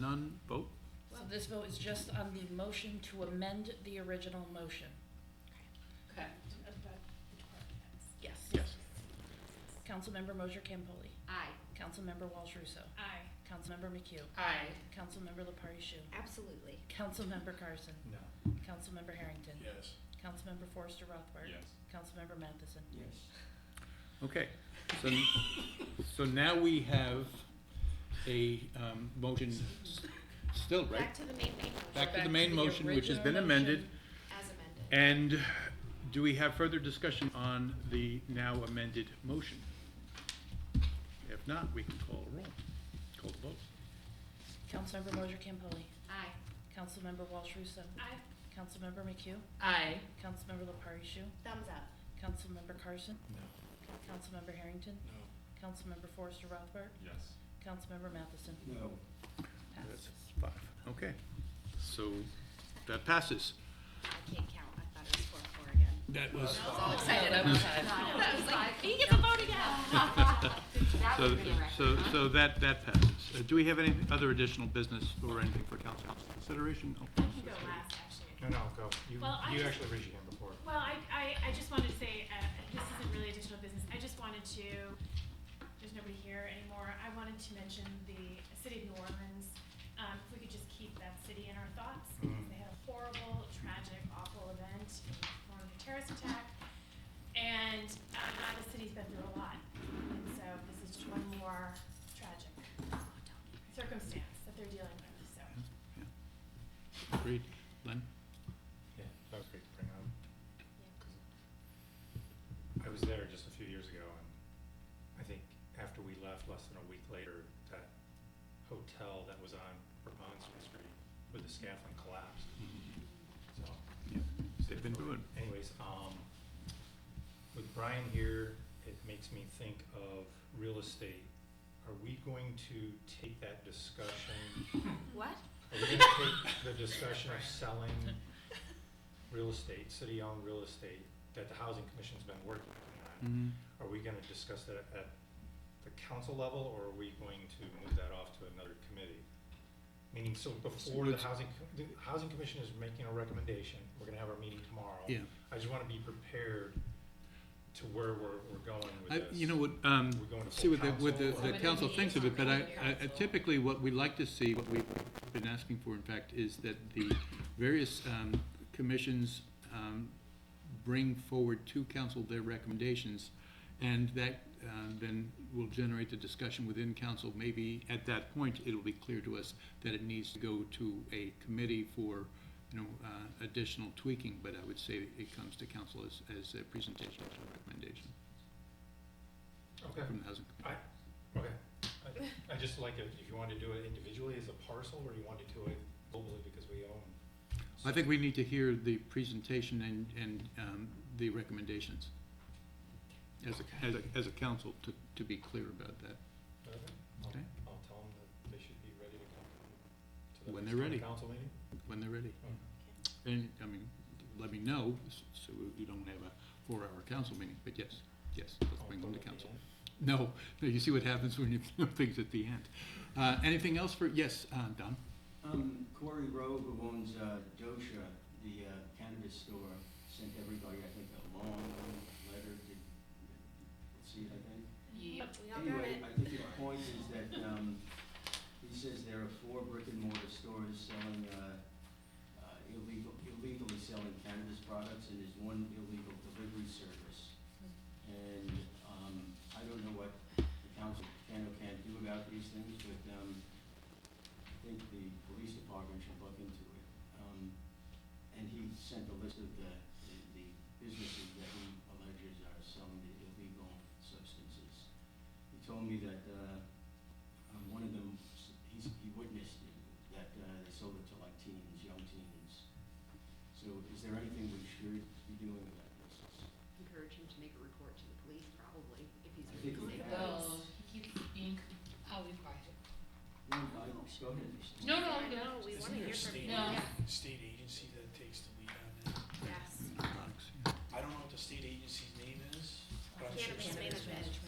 None, vote? So this vote is just on the motion to amend the original motion. Okay. Yes. Yes. Councilmember Mosher Campoli. Aye. Councilmember Walsh Russo. Aye. Councilmember McHugh. Aye. Councilmember Lepari Shu. Absolutely. Councilmember Carson. No. Councilmember Harrington. Yes. Councilmember Forrester Rothberg. Yes. Councilmember Matheson. Yes. Okay, so, so now we have a, um, motion s- still, right? Back to the main, main motion. Back to the main motion, which has been original amended. motion. As amended. And do we have further discussion on the now amended motion? If not, we can call a roll. Call the vote. Councilmember Mosher Campoli. Aye. Councilmember Walsh Russo. Aye. Councilmember McHugh. Aye. Councilmember Lepari Shu. Thumbs up. Councilmember Carson. No. Councilmember Harrington. No. Councilmember Forrester Rothberg. Yes. Councilmember Matheson. No. Passes. Five. Okay, so that passes. I can't count. I thought it was four, four again. That was. I was all excited. I was like, he gets So, so, so that, that passes. Uh, Do we have any other additional business or anything for council consideration? Oh, No. You go last, actually. No, no, go. You, Well, I you just- actually raised your hand before. Well, I, I, I just wanted to say, uh, this isn't really additional business, I just wanted to, there's nobody here anymore, I wanted to mention the city of New Orleans. Um, if we could just keep that city in our thoughts, Mm-hmm. because they had a horrible, tragic, awful event in the form of a terrorist attack. And, um, now the city's been through a lot, and so this is just one more tragic circumstance that they're dealing with, so. Agreed. Len? Yeah, that was great to bring up. I was there just a few years ago and I think after we left, less than a week later, that hotel that was on Rapunzel Street with the scaffolding collapsed, so. Yeah, They've been doing. Anyways, um, with Brian here, it makes me think of real estate. Are we going to take that discussion What? are we gonna take the discussion of selling real estate, city-owned real estate, that the housing commission's been working on? Mhm. Are we gonna discuss that at the council level, or are we going to move that off to another committee? Meaning, so before the Let's- housing, co- the housing commission is making a recommendation, we're gonna have our meeting tomorrow. Yeah. I just wanna be prepared to where we're, we're going with I, this. you know what, um, We're going to see what the, full what the, council the or- council thinks of it, but I, Somebody I- needs typically what we like to see, what we've been asking for, in fact, is that the various, um, commissions, um, bring forward to council their recommendations, and that, um, then will generate the discussion within council, maybe at that point, it'll be clear to us that it needs to go to a committee for, you know, uh, additional tweaking, but I would say it comes to council as, as a presentation, as a recommendation Okay. from the housing committee. I, okay, I, I just like it, if you want to do it individually as a parcel, or you want to do it globally because we own. I think we need to hear the presentation and, and um, the recommendations as a, as a, as a council to, to be clear about that. Okay, Okay. I'll, I'll tell them that they should be ready to come to the When next they're ready. Hmm. Council meeting? when they're ready. And, I mean, let me know, s- so we don't have a four-hour council meeting, but yes, yes, let's I'll bring put them it to at the council. end. No, no, you see what happens when you throw things at the end. Uh, Anything else for, yes, uh, Don? Um, Corey Rowe, who owns, uh, Dosha, the uh, cannabis store, sent everybody, I think, a long letter to, see, I think. Yep, we all got it. Anyway, I think the point is that, um, he says there are four brick and mortar stores selling, uh, uh, illegal, illegally selling cannabis products, and there's one illegal delivery service. And, um, I don't know what the council can or can't do about these things, but, um, I think the police department should look into it. Um, and he sent a list of the, the- the businesses that he alleges are selling the illegal substances he told me that, uh, um, one of them, s- he's, he witnessed it, that, uh, they sold it to like teens, young teens. So is there anything we should be doing about this? Encourage him to make a report to the police, probably, if he's I really think he sick. has. Well, he keeps being, I'll be quiet. No, I, go ahead. No, no, I know, we Isn't wanna there hear a from state- you. No. Yeah. state agency that takes the lead on that. Yes. Alex, yeah. I don't know what the state agency's name is, but I'm sure. Cannabis it's- management.